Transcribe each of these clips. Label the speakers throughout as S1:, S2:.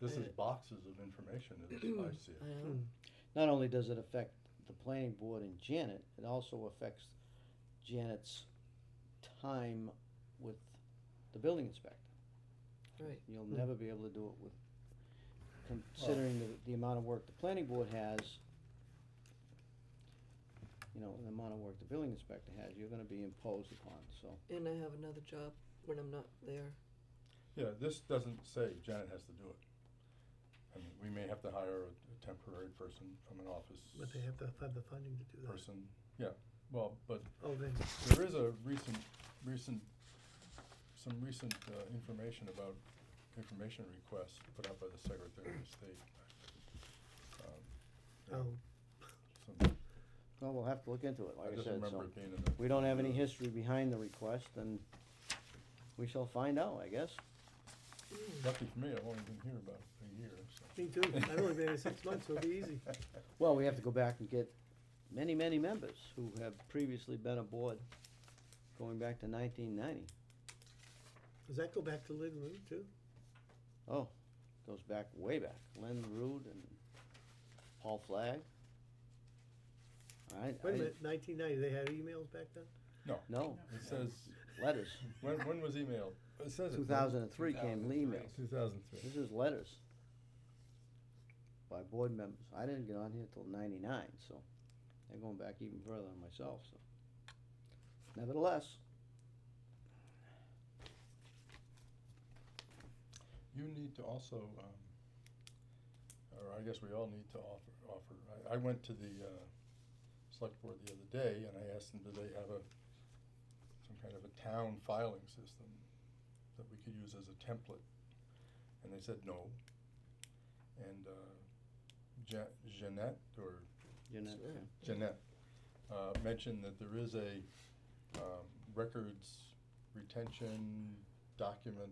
S1: This
S2: Uh,
S1: is boxes of information as I see it.
S2: Hmm.
S3: I know.
S4: Not only does it affect the planning board and Janet, it also affects Janet's time with the building inspector.
S3: Right.
S4: You'll
S2: Hmm.
S4: never be able to do it with, considering the, the amount of work the planning board has, you know, and the amount of work the building inspector has, you're gonna be imposed upon, so.
S3: And I have another job when I'm not there.
S1: Yeah, this doesn't say Janet has to do it. I mean, we may have to hire a a temporary person from an office
S2: But they have to have the funding to do that.
S1: person. Yeah, well, but
S2: Oh, they,
S1: there is a recent, recent, some recent uh, information about information requests put out by the Secretary of State. Um, yeah,
S2: oh,
S1: some-
S4: Well, we'll have to look into it, like
S1: I
S4: I
S1: just
S4: said,
S1: remember
S4: so.
S1: it being in the.
S4: We don't have any history behind the request, and we shall find out, I guess.
S1: Lucky for me, I've only been here about a year, so.
S2: me too. I've only been here six months, so it'll be easy.
S4: Well, we have to go back and get many, many members who have previously been aboard, going back to nineteen ninety.
S2: Does that go back to Lynn Root too?
S4: Oh, goes back way back. Len Rude and Paul Flagg. I,
S2: Wait a
S4: I-
S2: minute, nineteen ninety, they had emails back then?
S4: no,
S1: It says,
S4: letters.
S1: when, when was emailed? It says it.
S4: Two thousand and three came email.
S1: Two thousand three.
S4: This is letters by board members. I didn't get on here till ninety-nine, so they're going back even further than myself, so. Nevertheless,
S1: You need to also, um, or I guess we all need to offer, offer, I, I went to the, uh, select board the other day and I asked them, do they have a, some kind of a town filing system that we could use as a template? And they said no. And, uh, Ja- Jeanette or
S4: you know,
S3: Sure.
S1: Jeanette, uh, mentioned that there is a, um, records retention document,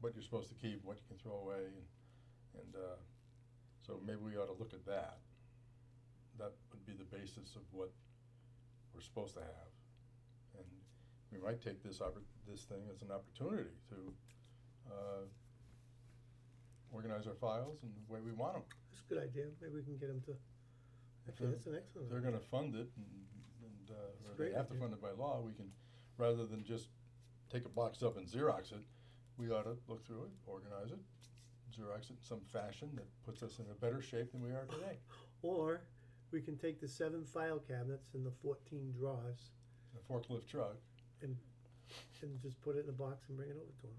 S1: what you're supposed to keep, what you can throw away, and, and, uh, so maybe we ought to look at that. That would be the basis of what we're supposed to have. And we might take this oppor- this thing as an opportunity to, uh, organize our files in the way we want them.
S2: That's a good idea. Maybe we can get them to, actually, that's an excellent.
S1: they're
S2: idea.
S1: gonna fund it and, and,
S2: It's
S1: uh, or
S2: a
S1: they
S2: great
S1: have to
S2: idea.
S1: fund it by law, we can, rather than just take a box up and Xerox it, we ought to look through it, organize it, Xerox it in some fashion that puts us in a better shape than we are today.
S2: Or we can take the seven file cabinets and the fourteen drawers
S1: A forklift truck,
S2: and just put it in a box and bring it over to them.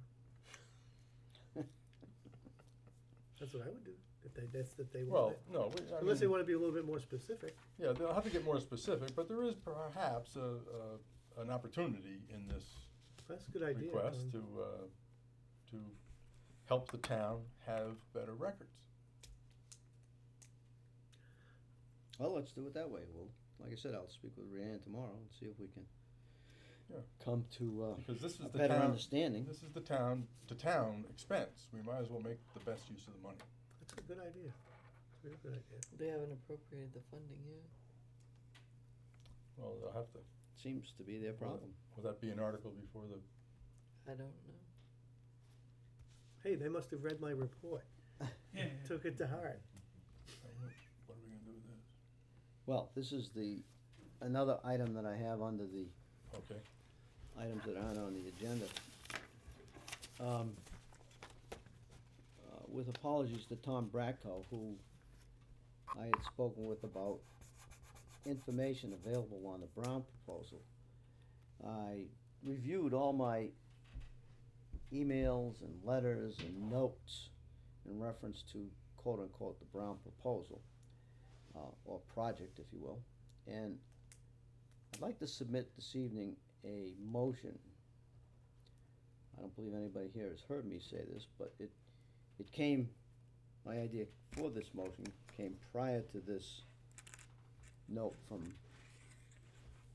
S2: That's what I would do, if they, that's that they want
S1: well,
S2: it.
S1: no, we, I
S2: Unless they
S1: mean,
S2: wanna be a little bit more specific.
S1: yeah, they'll have to get more specific, but there is perhaps a, a, an opportunity in this
S2: That's a good idea.
S1: request
S2: Tom.
S1: to, uh, to help the town have better records.
S4: Well, let's do it that way. Well, like I said, I'll speak with Rhiannon tomorrow and see if we can
S1: Yeah.
S4: come to uh,
S1: Because this is
S4: a
S1: the
S4: better
S1: town,
S4: understanding.
S1: This is the town, to town expense, we might as well make the best use of the money.
S2: That's a good idea. It's a real good idea.
S3: They haven't appropriated the funding yet.
S1: Well, they'll have to,
S4: Seems to be their problem.
S1: will that be an article before the,
S3: I don't know.
S2: Hey, they must have read my report. Took it to heart.
S1: what are we gonna do with this?
S4: Well, this is the, another item that I have under the
S1: Okay,
S4: items that aren't on the agenda. Um, uh, With apologies to Tom Bracco, who I had spoken with about information available on the Brown proposal. I reviewed all my emails and letters and notes in reference to quote-unquote the Brown proposal, uh, or project, if you will. And I'd like to submit this evening a motion. I don't believe anybody here has heard me say this, but it, it came, my idea for this motion came prior to this note from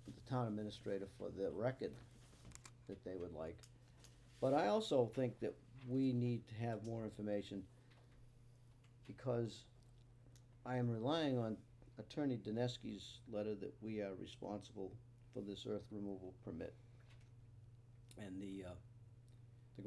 S4: the town administrator for the record that they would like. But I also think that we need to have more information because I am relying on Attorney Dineski's letter that we are responsible for this earth removal permit. And the, uh,